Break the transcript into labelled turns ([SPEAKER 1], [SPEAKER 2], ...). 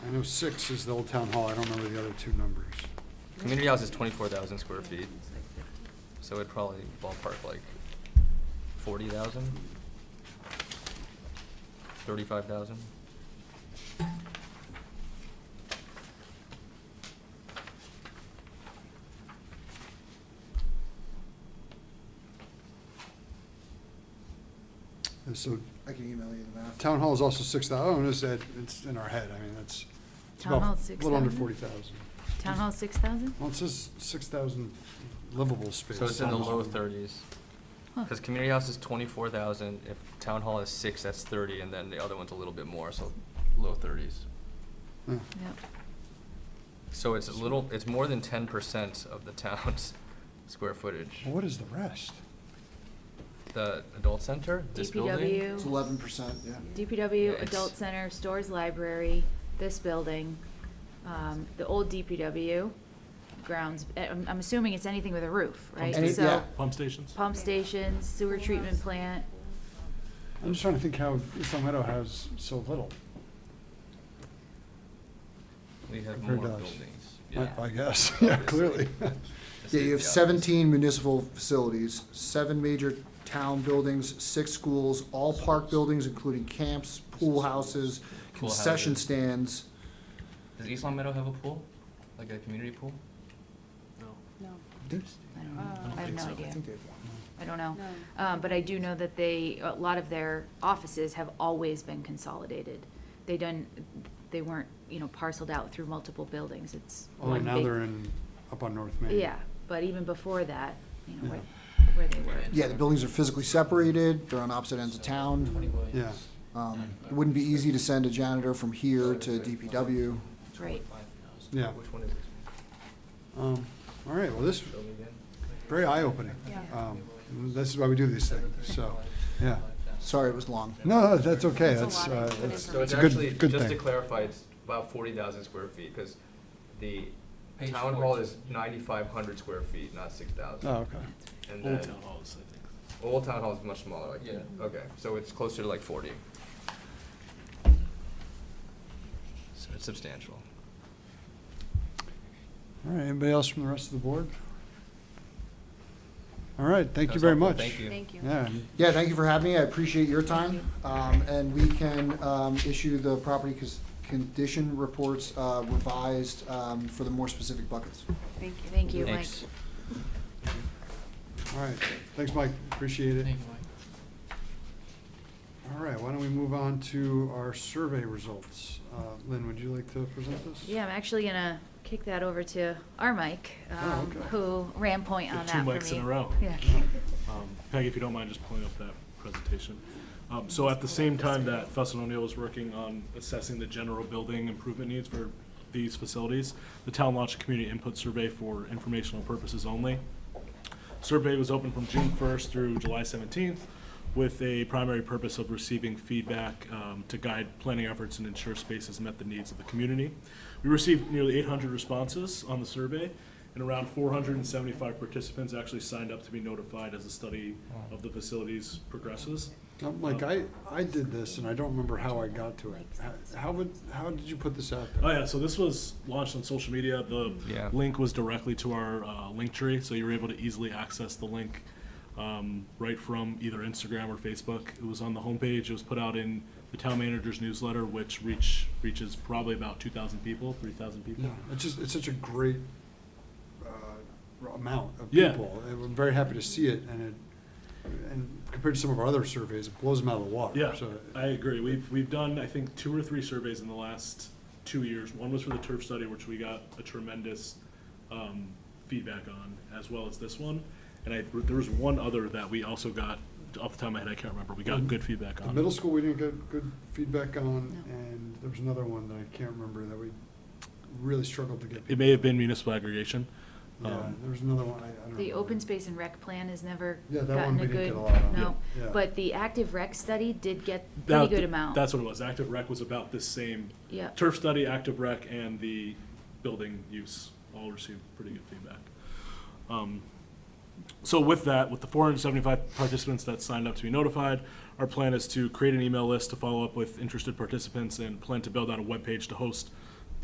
[SPEAKER 1] oh six is the old town hall, I don't remember the other two numbers.
[SPEAKER 2] Community house is twenty-four thousand square feet, so it'd probably ballpark like forty thousand? Thirty-five thousand?
[SPEAKER 1] And so,
[SPEAKER 3] I can email you the math.
[SPEAKER 1] town hall is also six thousand. oh, it's, that- it's in our head, I mean, that's, it's
[SPEAKER 4] Town
[SPEAKER 1] about,
[SPEAKER 4] hall's
[SPEAKER 1] a little under
[SPEAKER 4] 6,000?
[SPEAKER 1] forty thousand.
[SPEAKER 4] Town hall six thousand?
[SPEAKER 1] Well, it says six thousand livable space.
[SPEAKER 2] So it's in the
[SPEAKER 1] Town hall.
[SPEAKER 2] low thirties,
[SPEAKER 4] Huh.
[SPEAKER 2] because community house is twenty-four thousand, if town hall is six, that's thirty, and then the other one's a little bit more, so low thirties.
[SPEAKER 1] Yeah.
[SPEAKER 4] Yep.
[SPEAKER 2] So it's a little, it's more than ten percent of the town's square footage.
[SPEAKER 1] Well, What is the rest?
[SPEAKER 2] The adult center, this building?
[SPEAKER 4] DPW.
[SPEAKER 3] It's eleven percent, yeah.
[SPEAKER 2] Yeah,
[SPEAKER 4] DPW,
[SPEAKER 2] it's-
[SPEAKER 4] Adult Center, Stores Library, this building, um, the old DPW, grounds, eh, I'm, I'm assuming it's anything with a roof, right?
[SPEAKER 3] Any-
[SPEAKER 4] So
[SPEAKER 3] yeah.
[SPEAKER 5] Pump stations?
[SPEAKER 4] Pump stations, sewer treatment plant,
[SPEAKER 1] I'm just trying to think how East Long Meadow has so little.
[SPEAKER 2] We have more
[SPEAKER 1] Compared to us.
[SPEAKER 2] buildings,
[SPEAKER 1] I-
[SPEAKER 2] yeah.
[SPEAKER 1] I guess, yeah, clearly. Oh,
[SPEAKER 2] This is
[SPEAKER 3] Yeah, you have
[SPEAKER 2] the others.
[SPEAKER 3] seventeen municipal facilities, seven major town buildings, six schools, all park buildings, including camps, pool houses,
[SPEAKER 2] Pool
[SPEAKER 3] concession
[SPEAKER 2] houses.
[SPEAKER 3] stands.
[SPEAKER 2] Does East Long Meadow have a pool? Like a community pool?
[SPEAKER 5] No.
[SPEAKER 6] No,
[SPEAKER 4] I don't know,
[SPEAKER 6] Uh, I don't
[SPEAKER 4] I have
[SPEAKER 5] think
[SPEAKER 4] no
[SPEAKER 5] so. I
[SPEAKER 4] idea,
[SPEAKER 3] think they have one.
[SPEAKER 4] I don't know.
[SPEAKER 6] no.
[SPEAKER 4] Um, but I do know that they, a lot of their offices have always been consolidated. They done, they weren't, you know, parceled out through multiple buildings, it's
[SPEAKER 5] Oh,
[SPEAKER 1] Although
[SPEAKER 4] one
[SPEAKER 1] now
[SPEAKER 4] big.
[SPEAKER 1] they're in, up on North Main.
[SPEAKER 4] Yeah, but even before that, you know, where, where they were.
[SPEAKER 3] Yeah, the buildings are physically separated, they're on opposite ends of town.
[SPEAKER 1] Yeah.
[SPEAKER 3] Um, It wouldn't be easy to send a janitor from here to DPW.
[SPEAKER 4] Right.
[SPEAKER 1] Yeah.
[SPEAKER 2] Which one is this?
[SPEAKER 1] Um, all right, well, this,
[SPEAKER 2] Building again?
[SPEAKER 1] very eye-opening.
[SPEAKER 6] Yeah.
[SPEAKER 1] Um, This is why we do these things, so, yeah.
[SPEAKER 3] Sorry, it was long.
[SPEAKER 1] No, no, that's okay,
[SPEAKER 6] That's
[SPEAKER 1] that's,
[SPEAKER 6] a lot of
[SPEAKER 1] uh,
[SPEAKER 6] good
[SPEAKER 1] that's
[SPEAKER 2] So
[SPEAKER 1] it's
[SPEAKER 2] it's
[SPEAKER 1] a good,
[SPEAKER 2] actually,
[SPEAKER 1] good
[SPEAKER 2] just to
[SPEAKER 1] thing.
[SPEAKER 2] clarify, it's about forty thousand square feet, because the
[SPEAKER 5] Page
[SPEAKER 2] town hall
[SPEAKER 5] 14.
[SPEAKER 2] is ninety-five hundred square feet, not six thousand.
[SPEAKER 1] Oh, okay.
[SPEAKER 2] And
[SPEAKER 5] Old
[SPEAKER 2] then,
[SPEAKER 5] town halls, I think.
[SPEAKER 2] Old Town Hall is much smaller, like,
[SPEAKER 5] Yeah.
[SPEAKER 2] okay, so it's closer to like forty. So it's substantial.
[SPEAKER 1] All right, anybody else from the rest of the board? All right, thank you
[SPEAKER 2] That's
[SPEAKER 1] very
[SPEAKER 2] helpful.
[SPEAKER 1] much.
[SPEAKER 2] Thank you.
[SPEAKER 6] Thank you.
[SPEAKER 1] Yeah, and
[SPEAKER 3] Yeah, thank you for having me, I appreciate your time. Um, And we can um, issue the property cons- condition reports uh, revised um, for the more specific buckets.
[SPEAKER 6] Thank you.
[SPEAKER 4] Thank you, Mike.
[SPEAKER 2] Thanks.
[SPEAKER 1] All right, thanks, Mike, appreciate it.
[SPEAKER 5] Thank you, Mike.
[SPEAKER 1] All right, why don't we move on to our survey results? Uh, Lynn, would you like to present this?
[SPEAKER 4] Yeah, I'm actually gonna kick that over to our Mike,
[SPEAKER 1] Oh,
[SPEAKER 4] um,
[SPEAKER 1] okay.
[SPEAKER 4] who ran point
[SPEAKER 5] Get
[SPEAKER 4] on that
[SPEAKER 5] two
[SPEAKER 4] for me.
[SPEAKER 5] mics in a row.
[SPEAKER 4] Yeah.
[SPEAKER 5] Um, Peggy, if you don't mind just pulling up that presentation. Um, So at the same time that Fussin O'Neill was working on assessing the general building improvement needs for these facilities, the town launched a community input survey for informational purposes only. Survey was open from June 1st through July 17th with a primary purpose of receiving feedback um, to guide planning efforts and ensure spaces met the needs of the community. We received nearly 800 responses on the survey, and around 475 participants actually signed up to be notified as the study of the facilities progresses.
[SPEAKER 1] Um, Like, I, I did this, and I don't remember how I got to it. How- How would, how did you put this out
[SPEAKER 5] Oh
[SPEAKER 1] there?
[SPEAKER 5] yeah, so this was launched on social media. The
[SPEAKER 2] Yeah.
[SPEAKER 5] link was directly to our uh, link tree, so you were able to easily access the link um, right from either Instagram or Facebook. It was on the homepage. It was put out in the town manager's newsletter, which reach reaches probably about two thousand people, three thousand people.
[SPEAKER 1] Yeah, it's just, it's such a great uh, r- amount of
[SPEAKER 5] Yeah.
[SPEAKER 1] people. And I'm very happy to see it, and it, and compared to some of our other surveys, it blows them out of the water.
[SPEAKER 5] Yeah,
[SPEAKER 1] So,
[SPEAKER 5] I agree. We've, we've done, I think, two or three surveys in the last two years. One was for the turf study, which we got a tremendous um, feedback on, as well as this one. And I, there was one other that we also got, off the top of my head, I can't remember, we got good feedback
[SPEAKER 1] The
[SPEAKER 5] on.
[SPEAKER 1] middle school, we didn't get good feedback on,
[SPEAKER 4] No.
[SPEAKER 1] and there was another one that I can't remember that we really struggled to get.
[SPEAKER 5] It may have been municipal aggregation.
[SPEAKER 1] Yeah,
[SPEAKER 5] um,
[SPEAKER 1] there was another one, I, I don't remember.
[SPEAKER 4] The open space and rec plan has never
[SPEAKER 1] Yeah, that one
[SPEAKER 4] gotten
[SPEAKER 1] we
[SPEAKER 4] a
[SPEAKER 1] didn't
[SPEAKER 4] good,
[SPEAKER 1] get a lot on.
[SPEAKER 4] no,
[SPEAKER 1] Yeah.
[SPEAKER 4] but the active rec study did get pretty
[SPEAKER 5] That-
[SPEAKER 4] good amount.
[SPEAKER 5] That's what it was. Active rec was about this same,
[SPEAKER 4] Yeah,
[SPEAKER 5] turf study, active rec, and the building use all received pretty good feedback. Um, So with that, with the four hundred and seventy-five participants that signed up to be notified, our plan is to create an email list to follow up with interested participants and plan to build out a webpage to host